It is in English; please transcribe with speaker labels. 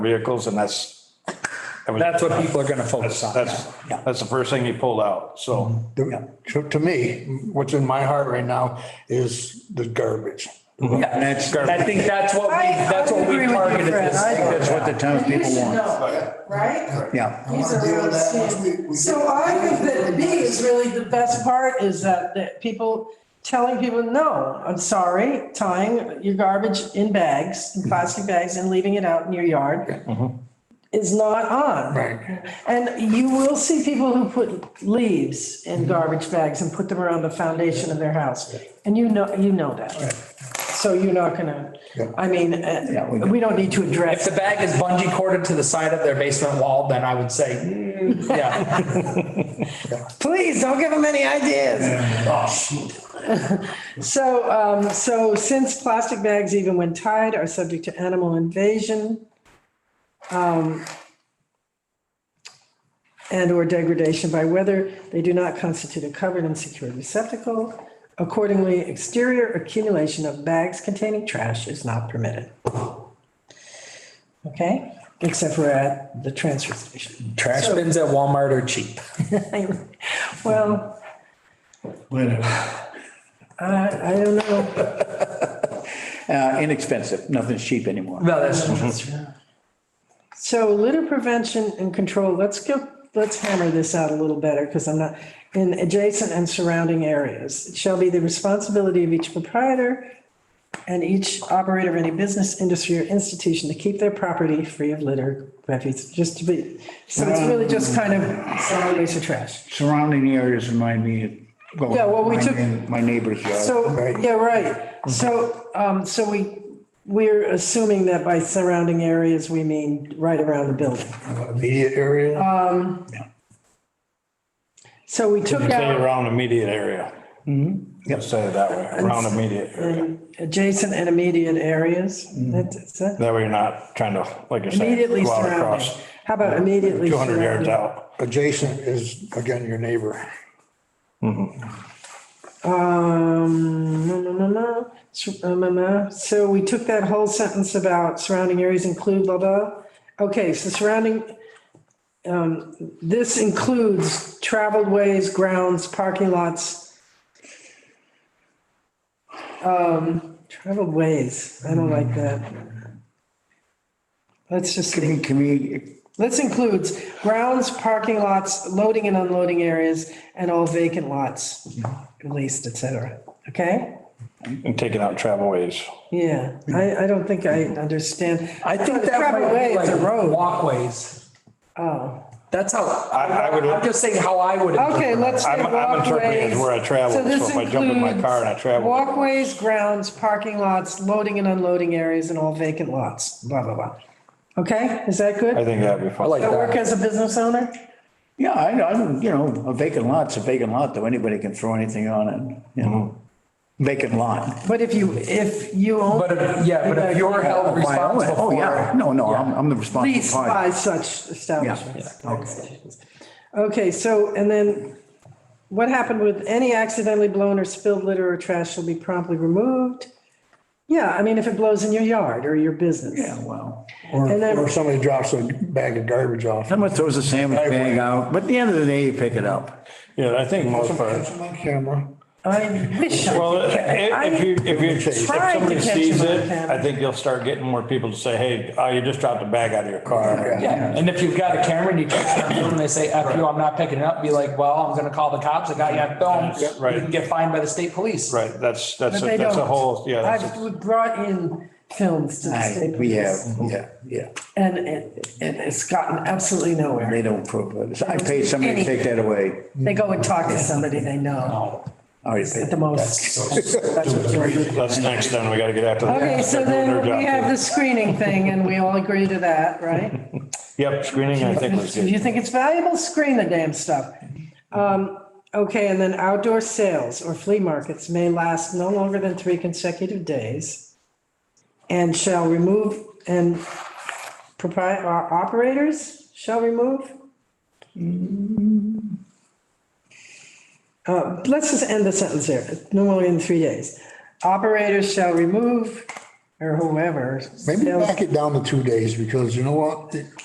Speaker 1: vehicles and that's. that was-
Speaker 2: That's what people are gonna focus on.
Speaker 1: That's, that's the first thing he pulled out, so.
Speaker 3: To, to me, what's in my heart right now is the garbage.
Speaker 2: And that's- I think that's what we,
Speaker 4: I-
Speaker 2: that's
Speaker 4: I
Speaker 2: what we
Speaker 4: agree with you,
Speaker 2: targeted
Speaker 4: Fred.
Speaker 2: this.
Speaker 4: I-
Speaker 2: for.
Speaker 5: That's what the
Speaker 4: You
Speaker 5: townspeople
Speaker 4: should
Speaker 5: want.
Speaker 4: know, right?
Speaker 5: Yeah.
Speaker 3: I wanna deal with that once we- we
Speaker 4: So
Speaker 3: get-
Speaker 4: I think that B is really the best part is that, that people, telling people, no, I'm sorry, tying your garbage in bags, in plastic bags and leaving it out in your yard is not on.
Speaker 3: Right.
Speaker 4: And you will see people who put leaves in garbage bags and put them around the foundation of their house. And you know, you know that. So you're not gonna, I mean, uh,
Speaker 5: we-
Speaker 4: we don't need to
Speaker 2: If
Speaker 4: address.
Speaker 2: the bag is bungee corded to the side of their basement wall, then I would say, mm, yeah.
Speaker 4: Please, don't give them any ideas. So, um, so since plastic bags, even when tied, are subject to animal invasion, um, and or degradation by weather, they do not constitute a covered and secured receptacle. Accordingly, exterior accumulation of bags containing trash is not permitted. Okay, except for at the transfer station.
Speaker 2: Trash bins at Walmart are cheap.
Speaker 4: Well, I, I don't know.
Speaker 5: Uh, inexpensive, nothing's cheap anymore.
Speaker 2: No, that's true.
Speaker 4: So litter prevention and control, let's go, let's hammer this out a little better because I'm not, in adjacent and surrounding areas. It shall be the responsibility of each proprietor and each operator of any business, industry or institution to keep their property free of litter, refuse, just to be, so it's really just kind of solid waste or trash.
Speaker 5: Surrounding areas remind me of. well,
Speaker 4: Yeah, well, we
Speaker 5: my
Speaker 4: took-
Speaker 5: neigh- My neighbor's yard.
Speaker 4: So,
Speaker 3: Right.
Speaker 4: yeah, right. So, um, so we, we're assuming that by surrounding areas, we mean right around the building.
Speaker 3: Immediate
Speaker 4: Uh,
Speaker 3: area,
Speaker 4: So we took
Speaker 1: You
Speaker 4: out.
Speaker 1: say around immediate area.
Speaker 2: Mm-hmm.
Speaker 1: Let's say it that way, around immediate area.
Speaker 4: in adjacent and immediate areas. That's- that's it.
Speaker 1: That way you're not trying to, like you're saying.
Speaker 4: Immediately
Speaker 1: Mm-hmm. go out
Speaker 4: surrounding.
Speaker 1: across
Speaker 4: How about immediately
Speaker 1: Two hundred yards
Speaker 4: surrounding?
Speaker 1: out.
Speaker 3: adjacent is, again, your neighbor.
Speaker 4: Um, no, no, no, no. Sur- um, um, uh, So we took that whole sentence about surrounding areas include blah, blah. Okay, so surrounding, um, this includes traveled ways, grounds, parking lots. Um, traveled ways, I don't like that. Let's just.
Speaker 5: Can we- can we,
Speaker 4: This includes grounds, parking lots, loading and unloading areas, and all vacant lots, at least, et cetera. Okay?
Speaker 1: And taking out travel ways.
Speaker 4: Yeah, I, I don't think I understand.
Speaker 2: I think that
Speaker 4: Travel
Speaker 2: might
Speaker 4: way
Speaker 2: be
Speaker 4: is a
Speaker 2: like
Speaker 4: road.
Speaker 2: walkways.
Speaker 4: Oh,
Speaker 2: That's how,
Speaker 1: I- I
Speaker 2: I
Speaker 1: would-
Speaker 2: would, I'm just saying how I would. interpret
Speaker 4: okay,
Speaker 2: it.
Speaker 4: let's say
Speaker 1: I'm, I'm interpreting it
Speaker 4: walkways.
Speaker 1: as where I travel, so
Speaker 4: So this
Speaker 1: if I jump in my car and I
Speaker 4: includes
Speaker 1: travel.
Speaker 4: Walkways, grounds, parking lots, loading and unloading areas, and all vacant lots, blah, blah, blah. Okay, is that
Speaker 1: I
Speaker 4: good?
Speaker 1: think that'd be fun.
Speaker 2: I like
Speaker 4: I work
Speaker 2: that.
Speaker 4: as a business owner?
Speaker 5: yeah, I, I, don't- you know, a vacant lot's a vacant lot, though, anybody can throw anything on it, you know? Vacant lot.
Speaker 4: But if you, if you own.
Speaker 2: But, if- yeah, but if you're held
Speaker 5: My own-
Speaker 2: responsible
Speaker 5: Oh, yeah,
Speaker 2: for
Speaker 5: no, no, I'm, I'm the responsible
Speaker 4: leased
Speaker 5: party.
Speaker 4: by such establishments. Institutions. Okay, so, and then what happened with any accidentally blown or spilled litter or trash shall be promptly removed? Yeah, I mean, if it blows in your yard or your business.
Speaker 5: Yeah, well,
Speaker 3: Or,
Speaker 4: And then-
Speaker 3: or somebody drops a bag of garbage off.
Speaker 5: someone throws a sandwich bag out, but at the end of the day, you pick it up.
Speaker 1: Yeah, I think most parts.
Speaker 3: That's my camera.
Speaker 4: I wish, I-
Speaker 1: Well, i- if you, if you, if
Speaker 4: tried to
Speaker 1: somebody
Speaker 4: catch
Speaker 1: sees
Speaker 4: him on
Speaker 1: it,
Speaker 4: camera.
Speaker 1: I think you'll start getting more people to say, hey, oh, you just dropped a bag out of your car.
Speaker 2: it. Yeah, and if you've got a camera and you catch them and they say, F you, I'm not picking it up, be like, well, I'm gonna call the cops, I got you on
Speaker 1: Yeah,
Speaker 2: film.
Speaker 1: right.
Speaker 2: You can get fined by the state police.
Speaker 1: Right, that's, that's,
Speaker 4: but they
Speaker 1: a- that's a whole,
Speaker 4: don't.
Speaker 1: yeah. that's a-
Speaker 4: I've brought in films to the
Speaker 5: I,
Speaker 4: state.
Speaker 5: we have,
Speaker 4: police,
Speaker 5: yeah, yeah.
Speaker 4: And it, and it's gotten absolutely nowhere.
Speaker 5: They don't prove it. I paid somebody to take that away.
Speaker 4: They go and talk to somebody they know
Speaker 5: I Already paid.
Speaker 4: at the most. That's what they'll do.
Speaker 1: That's next, then we gotta get after that.
Speaker 4: Okay, so
Speaker 1: They're doing
Speaker 4: then
Speaker 1: their
Speaker 4: we
Speaker 1: job,
Speaker 4: have
Speaker 1: too.
Speaker 4: the screening thing and we all agree to that, right?
Speaker 1: Yep, screening, I think was
Speaker 4: If you
Speaker 1: good.
Speaker 4: think it's valuable, screen the damn stuff. Um, Okay, and then outdoor sales or flea markets may last no longer than three consecutive days and shall remove, and propri- uh, operators shall remove? Uh, Let's just end the sentence there, no longer than three days. Operators shall remove or whoever.
Speaker 3: Maybe
Speaker 4: sales
Speaker 3: back it down to two days because you know what?